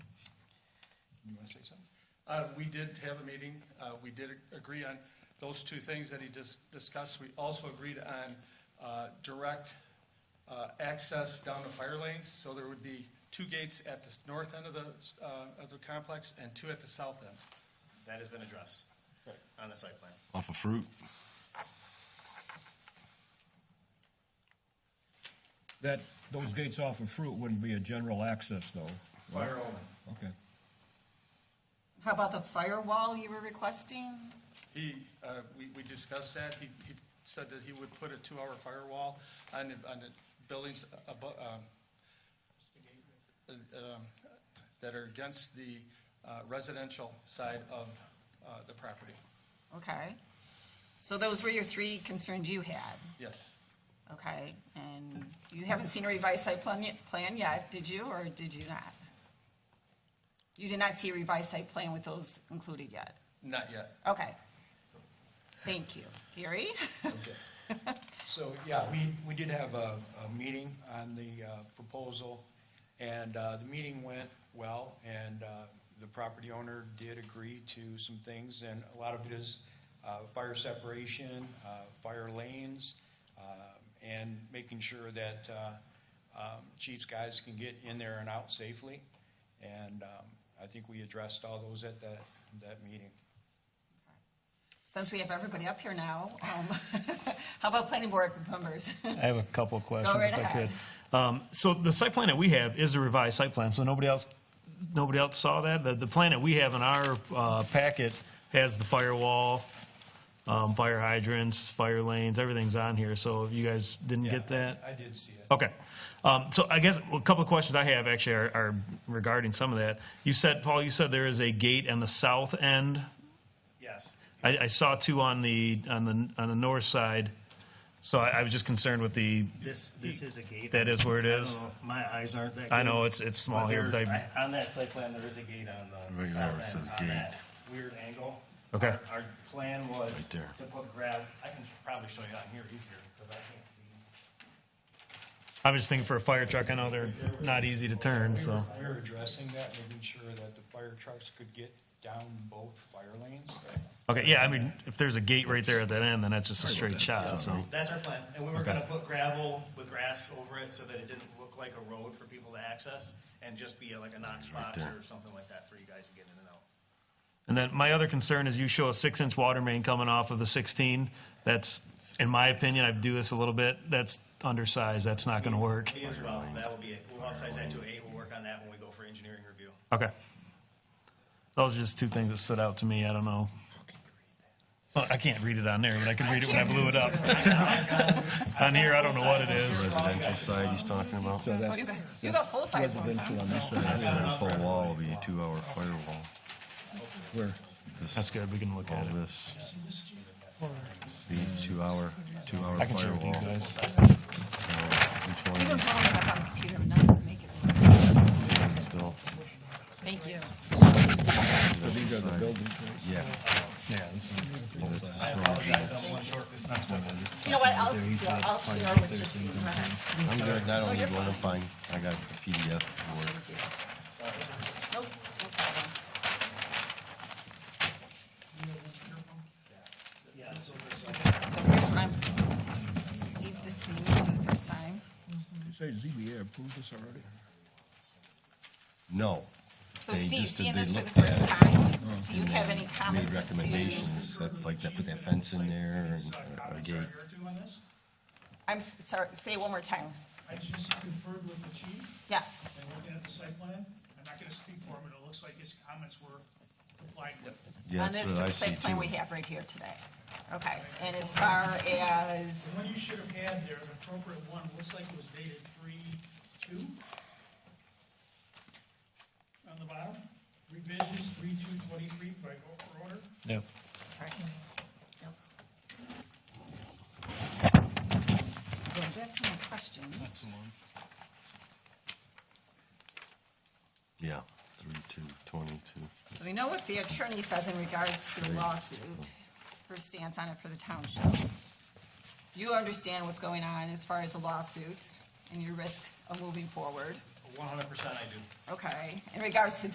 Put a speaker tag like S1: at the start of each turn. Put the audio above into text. S1: to say something? Uh, We did have a meeting. Uh, We did agree on those two things that he dis- discussed. We also agreed on uh, direct uh, access down the fire lanes. So there would be two gates at the north end of the, uh, of the complex and two at the south end.
S2: That has been addressed on the site plan.
S3: Off of Fruit.
S4: That, those gates off of Fruit wouldn't be a general access though. right?
S2: Fire only.
S4: Okay.
S5: How about the firewall you were requesting?
S1: He, uh, we we discussed that. He he said that he would put a two-hour firewall on the on the buildings um, above, um, that are against the uh, residential side of uh, the property.
S5: Okay. So those were your three concerns you had,
S1: Yes.
S5: okay? And you haven't seen a revised site plan, yet- plan yet, did you, or did you not? You did not see a revised site plan with those included yet?
S1: Not yet.
S5: Okay. Thank you. Gary?
S6: So, yeah, we, we did have a, a meeting on the uh, proposal, and uh, the meeting went well, and uh, the property owner did agree to some things, and a lot of it is uh, fire separation, uh, fire lanes, uh, and making sure that uh, um, chief's guys can get in there and out safely. And um, I think we addressed all those at that, that meeting.
S5: Since we have everybody up here now, um, how about planning board members?
S7: I have a couple of questions
S5: right
S7: if I
S5: ahead.
S7: could. Um, so the site plan that we have is a revised site plan, so nobody else, nobody else saw that? The, the plan that we have in our, uh, packet has the firewall, um, fire hydrants, fire lanes, everything's on here, so if you guys didn't get
S6: Yeah,
S7: that?
S6: I did see it.
S7: Okay. Um, so I guess a couple of questions I have actually are, are regarding some of that. You said, Paul, you said there is a gate on the south end
S2: Yes.
S7: I, I saw two on the on the on the north side, so I, I was just concerned with the.
S8: This, this is a gate.
S7: That is where it
S8: I don't
S7: is.
S8: know, My eyes aren't that good.
S7: I know it's it's small
S8: But
S7: here.
S8: there-
S7: But I,
S8: I- On that site plan, there is a gate on the
S3: Right
S8: south
S3: there, it
S8: end,
S3: says
S8: on
S3: gate.
S8: that weird angle.
S7: Okay.
S8: Our- Our plan was to
S3: there.
S8: put grab, I can probably show you on here easier, because I can't see.
S7: I was just thinking for a fire truck. I know they're not easy to turn,
S6: We
S7: so
S6: were- We were addressing that, making sure that the fire trucks could get down both fire lanes.
S7: okay. Yeah, I mean, if there's a gate right there at that end, then that's just a straight shot. So
S8: That's our plan, and we were
S7: Oh. Okay.
S8: gonna put gravel with grass over it, so that it didn't look like a road for people to access, and just be like a Knox box or something like that for you guys to get in and out.
S7: and then my other concern is you show a six inch water main coming off of the 16. That's in my opinion. I do this a little bit. That's undersized. That's not going to work.
S8: Me as well, that will be it. We'll upsize that to an eight, we'll work on that when we go for engineering review.
S7: Okay. Those are just two things that stood out to me. I don't know. Well, I can't read it on there, but I can read it when I blew it up. on here, I don't know what it is.
S3: Residential side he's talking about.
S4: So
S5: Oh,
S4: that's
S5: you got, you got full-size ones, huh?
S4: residential on this
S3: So
S4: side,
S3: this whole wall will be a two-hour firewall.
S4: where,
S7: That's good. We can look
S3: All
S7: at it.
S3: this. See, two-hour, two-hour
S7: I can share with you
S3: firewall.
S7: guys.
S3: Each one
S5: You've been
S3: is
S5: following up on the computer, but that's gonna make it worse.
S3: still,
S5: Thank you.
S4: these are the buildings, right?
S3: yeah.
S7: Yeah, this is-
S3: That's the storage units.
S5: You know what, I'll, yeah, I'll share with Justine. Renner.
S3: I'm good, I
S5: Oh,
S3: don't
S5: you're
S3: need one, I'm
S5: fine.
S3: fine. I got a PDF for it.
S5: Nope, no problem. So here's what I'm, Steve's just seeing this for the first time.
S4: You say ZBA approved this already?
S3: No.
S5: So
S3: They
S5: Steve,
S3: just did-
S5: seeing
S3: they
S5: this for the
S3: looked at
S5: first
S3: it.
S5: time, do you have any
S3: made
S5: comments to?
S3: recommendations, that's like, that put that fence in there and uh, a- a gate.
S5: I'm s- sorry, say it one more time.
S9: I just conferred with the chief
S5: Yes,
S9: and looking at the site plan. I'm not gonna speak for him, but it looks like his comments were applied with.
S3: Yeah,
S5: on
S3: that's
S5: this
S3: what I see
S5: site plan we
S3: too.
S5: have right here today. Okay, and as far as
S9: The one you should have had there, the appropriate one, looks like it was dated three, two? On the bottom, revisions three, two, twenty-three, by order.
S7: Yeah.
S5: Right. Yep. So Going back to my questions,
S3: Yeah, three, two, twenty-two.
S5: so we know what the attorney says in regards to the lawsuit, her stance on it for the township. You understand what's going on as far as the lawsuit and your risk of moving forward,
S2: One hundred percent I do.
S5: okay? In regards to